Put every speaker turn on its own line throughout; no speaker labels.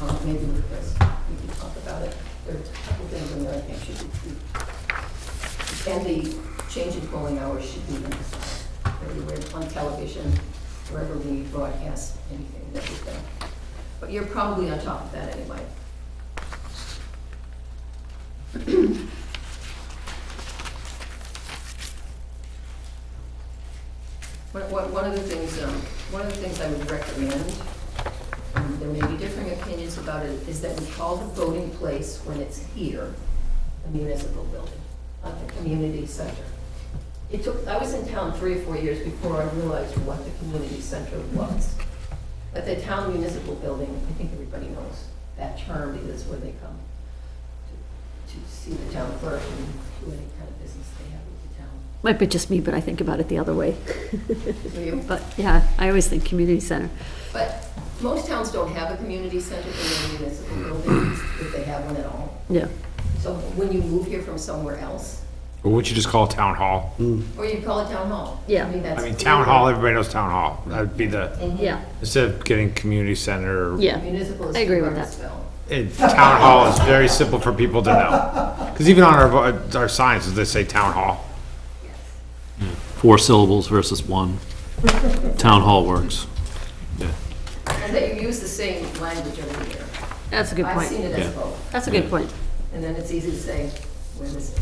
Um, maybe with Chris, we can talk about it. There are a couple things in there I think should be. And the change in polling hours should be emphasized everywhere, on television, wherever we broadcast anything that we've done. But you're probably on top of that anyway. One, one, one of the things, um, one of the things I would recommend, um, there may be differing opinions about it, is that we call the voting place when it's here, a municipal building, not the community center. It took, I was in town three or four years before I realized what the community center was. But the town municipal building, I think everybody knows that term because where they come to, to see the town clerk and do any kind of business they have with the town.
Might be just me, but I think about it the other way.
Do you?
But yeah, I always think community center.
But most towns don't have a community center in their municipal
Mm-hmm.
buildings, if they have one at all.
Yeah.
So when you move here from somewhere else,
Or would you just call it town hall?
or you call it town hall.
Yeah.
I mean, that's.
I mean, town hall, everybody knows town hall. That'd be the,
Yeah.
instead of getting community center,
Yeah.
Municipal is.
I agree with that.
Burnsville.
it- town hall is very simple for people to know. Because even on our, vo- our signs, they say town hall.
Four syllables versus one. Town hall works.
And that you use the same language every year.
That's a good
I've seen
point.
it as
Yeah.
both,
That's a good point.
and then it's easy to say, where this is.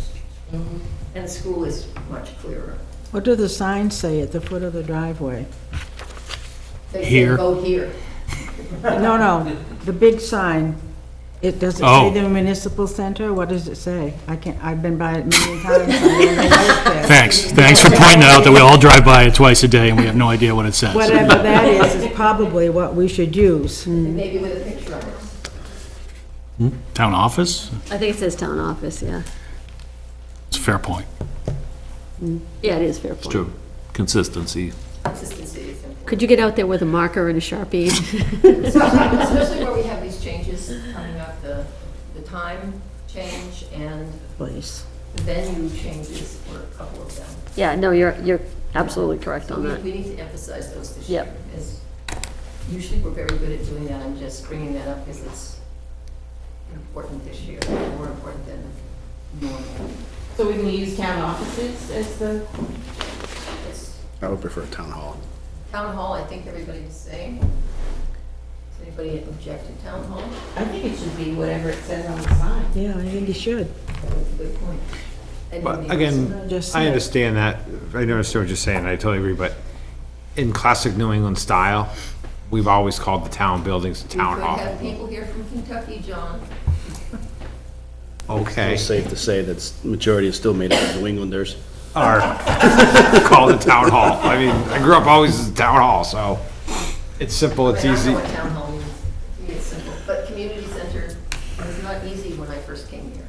Mm-hmm.
And school is much clearer.
What do the signs say at the foot of the driveway?
They say,
Here.
Go here.
No, no, the big sign, it, does it say
Oh.
the municipal center? What does it say? I can't, I've been by it many times. I don't know what it says.
Thanks, thanks for pointing out that we all drive by it twice a day and we have no idea what it says.
Whatever that is, is probably what we should use.
Maybe with a picture on it.
Town office?
I think it says town office, yeah.
It's a fair point.
Yeah, it is fair point.
True. Consistency.
Consistency is important.
Could you get out there with a marker and a Sharpie?
Especially where we have these changes coming up, the, the time change and
Please.
the venue changes for a couple of them.
Yeah, no, you're, you're absolutely correct
So
on
we,
that.
we need to emphasize those this year.
Yep.
as Usually we're very good at doing that, I'm just bringing that up because it's important this year, more important than normal.
So we can use town offices as the,
It's
I would prefer town hall.
Town hall, I think everybody's the same. Does anybody object to town hall?
I think it should be whatever it says on the sign.
Yeah, I think you should.
That's a good point. And
But
maybe
again,
Just
I
say-
understand that. I know what you're just saying. I totally agree, but in classic New England style, we've always called the town buildings the
We
town
could have
hall.
people here from Kentucky, John.
Okay.
It's safe to say that majority is still made up of New Englanders.
Or call it town hall. I mean, I grew up always as town hall, so it's simple, it's
I mean, I
easy.
know what town hall means, to me it's simple, but community center was not easy when I first came here.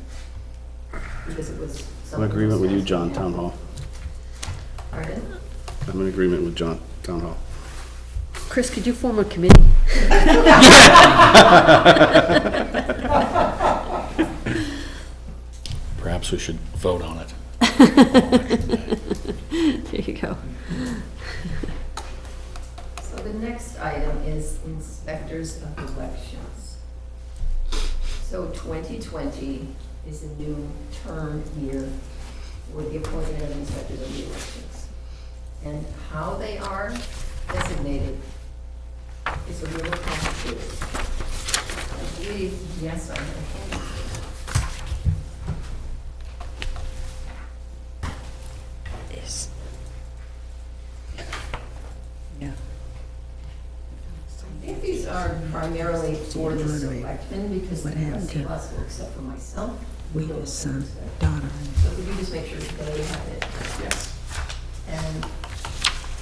Because it was.
I'm in agreement with you, John, town hall.
Pardon?
I'm in agreement with John, town hall.
Chris, could you form a committee?
Perhaps we should vote on it.
There you go.
So the next item is inspectors of elections. So 2020 is a new term year with the appointment of inspectors of the elections. And how they are designated is a little complicated. I believe, yes, I have. a hand. I think these are primarily for the selectmen because the
What happened
rest of
to-
us, well, except for myself.
We
don't
just,
have
um,
inspectors.
daughter.
So could you just make sure that we have it? Yes. And.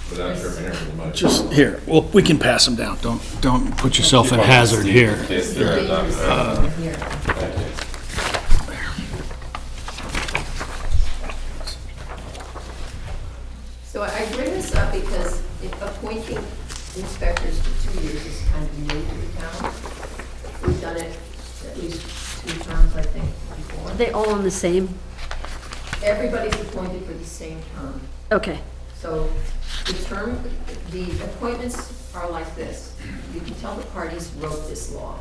Without your
Just here, well, we can pass them down. Don't, don't put yourself at hazard here.
This is dangerous over here. So I bring this up because if appointing inspectors for two years is kind of new to the town. We've done it at least two times, I think, before.
Are they all on the same?
Everybody's appointed for the same term.
Okay,
So the term, the appointments are like this. You can tell the parties wrote this law.